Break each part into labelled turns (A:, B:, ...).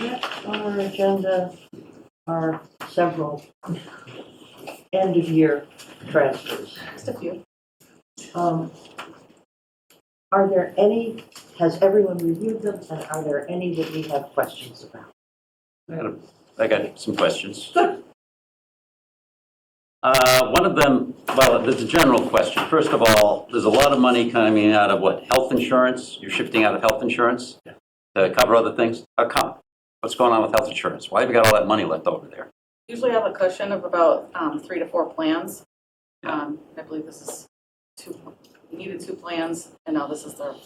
A: Next on our agenda are several end-of-year transfers.
B: Just a few.
A: Um, Are there any, has everyone reviewed them, and are there any that we have questions about?
C: I got, a- I got some questions. Uh, One of them, well, it's a general question. First of all, there's a lot of money coming out of what, health insurance? You're shifting out of health insurance to cover other things? How come? What's going on with health insurance? Why have you got all that money left over there?
B: Usually I have a cushion of about um, three to four plans. Um, I believe this is two, we needed two plans, and now this is the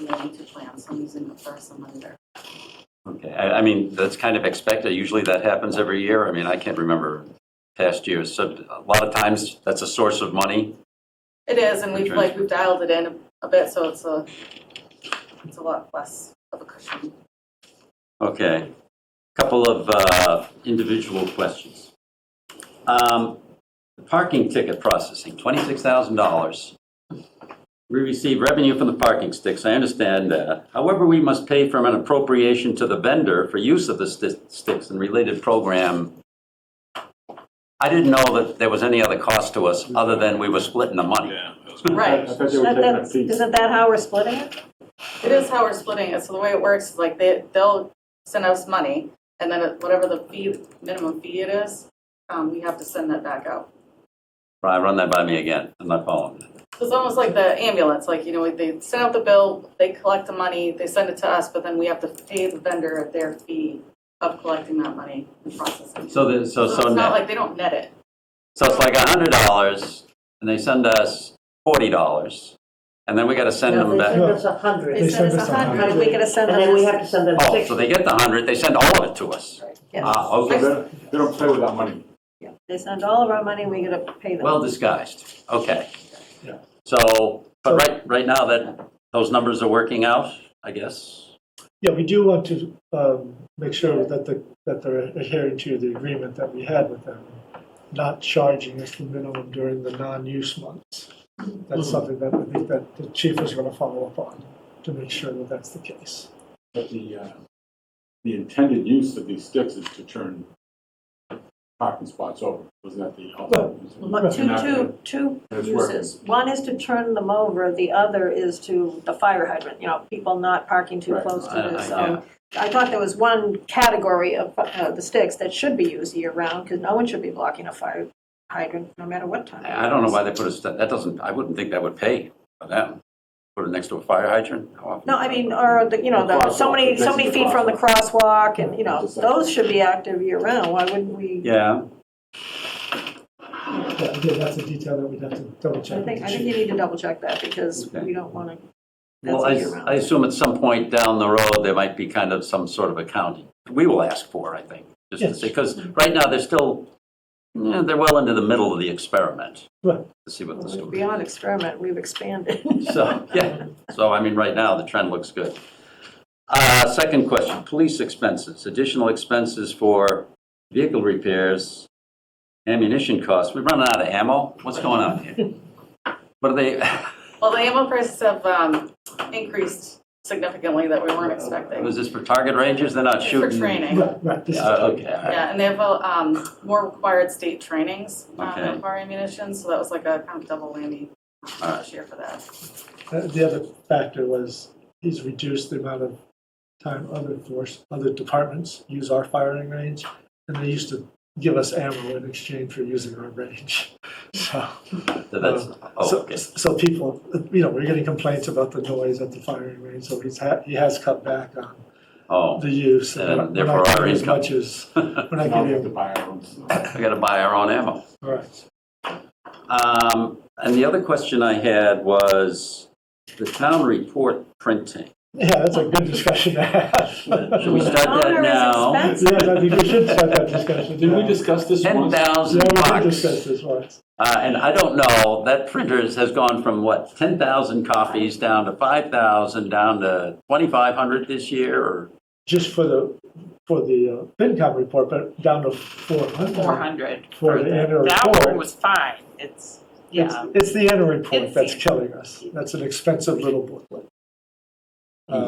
B: remaining two plans. I'm using the first and then there.
C: Okay, I, I mean, that's kind of expected. Usually that happens every year. I mean, I can't remember past years. So a lot of times, that's a source of money.
B: It is, and we've like, we've dialed it in a bit, so it's a, it's a lot less of a cushion.
C: Okay. Couple of uh, individual questions. Um, The Parking ticket processing, $26,000. We receive revenue from the parking sticks, I understand that. However, we must pay from an appropriation to the vendor for use of the sti- sticks and related program. I didn't know that there was any other cost to us other than we were splitting the money.
D: Yeah. that was-
B: Right.
D: I thought they were taking a piece.
A: Isn't that how we're splitting it?
B: It is how we're splitting it, so the way it works is like they, they'll send us money, and then it- whatever the fee, minimum fee it is, um, we have to send that back out.
C: Right, Run that by me again, I'm not following.
B: So it's almost like the ambulance, like, you know, they send out the bill, they collect the money, they send it to us, but then we have to pay the vendor at their fee of collecting that money and processing. it.
C: So, the- so, so
B: it's not
C: now.
B: like they don't net it.
C: So it's like hundred dollars, and they send us forty dollars, and then we got to send them
A: No, they
C: back.
A: send us a hundred,
E: They send us a hundred, we gotta
A: and
E: send
A: then
E: them
A: we
E: this.
A: have to send them
C: Oh,
A: six.
C: so they get the hundred, they send all of it to us.
E: Yeah.
C: Ah,
D: So
C: okay,
D: They they don't play with that money.
E: Yeah. They send all of our money, we gotta pay them.
C: well disguised. Okay.
F: Yeah.
C: So, but right, right now that those numbers are working out, I guess.
F: Yeah, we do want to um, make sure that the, that they're adhering to the agreement that we had with them, not charging us the minimum during the non-use months.
E: Mm-hmm.
F: That's something that I think that the chief is going to follow up on to make sure that that's the case.
D: But the, uh, the intended use of these sticks is to turn parking spots over. Wasn't that the ultimate? reason?
E: But Two,
D: And that-
E: two, two
D: and it's working.
E: uses. One is to turn them over, the other is to the fire hydrant, you know, people not parking too
D: Right.
E: close to
C: I- I-
E: this.
C: Uh, yeah.
E: um, I thought there was one category of uh, the sticks that should be used year-round, because no one should be blocking a fire hydrant, no matter what time.
C: I I don't know why they put us, that doesn't, I wouldn't think that would pay for them. Put it next to a fire hydrant? How often-
E: No, I mean, or, the you know, the, so many, so many feet from the crosswalk, and, you know, those should be active year-round, why wouldn't we?
C: Yeah.
F: Yeah, again, that's a detail that we'd have to double check.
E: I think,
F: with
E: I
F: the
E: think you
F: chief.
E: need to double-check that, because
C: Okay.
E: we don't want to, that's
C: Well, I,
E: a year-round.
C: I assume at some point down the road, there might be kind of some sort of accounting. We will ask for, I think, just to
F: Yes.
C: see, because right now, they're still, yeah, they're well into the middle of the experiment.
F: Right.
C: To see what the
E: Well,
C: story
E: Beyond experiment, we've expanded.
C: is. So, yeah, so I mean, right now, the trend looks good. Uh, second question, police expenses, additional expenses for vehicle repairs, ammunition costs. We're running out of ammo. What's going on here? What are they,
B: Well, the ammo prices have, um, increased significantly that we weren't expecting.
C: was this for target rangers? They're not
B: It's
C: shooting?
B: For training.
F: Right, right. this is-
C: Uh, okay, all right.
B: Yeah, and they have, uh, um, more required state trainings, um,
C: Okay.
B: that require ammunition, so that was like a kind of double whammy
C: Alright.
B: this year for that.
F: Uh, The other factor was he's reduced the amount of time other force, other departments use our firing range, and they used to give us ammo in exchange for using our range. So,
C: So that's, oh,
F: so,
C: okay.
F: so people, you know, we're getting complaints about the noise at the firing range, so he's ha- he has cut back on
C: Oh,
F: the use.
C: And
F: we're not
C: therefore our
F: getting as
C: income.
F: much as
C: we
F: we're
D: Now
F: not
D: we have
F: getting.
D: to buy our own stuff.
C: gotta buy our own ammo.
F: All right.
C: Um, and the other question I had was the town report printing.
F: Yeah, that's a good discussion to have.
C: Should we start that now?
E: Owner is
F: Yes, I think we should start that discussion.
D: Did we
F: now.
D: discuss this
C: Ten
D: once?
C: thousand
F: Yeah, we did
C: bucks.
F: discuss this once.
C: Uh, and I don't know, that printers has gone from what, ten thousand copies down to five thousand, down to twenty-five hundred this year or?
F: just for the, for the uh, FinCom report, but down to four hundred.
G: four hundred.
F: For the annual
G: That one
F: report.
G: was fine, it's, yeah,
F: It's, it's the annual report
G: It's
F: that's
G: the-
F: killing us. That's an expensive little booklet.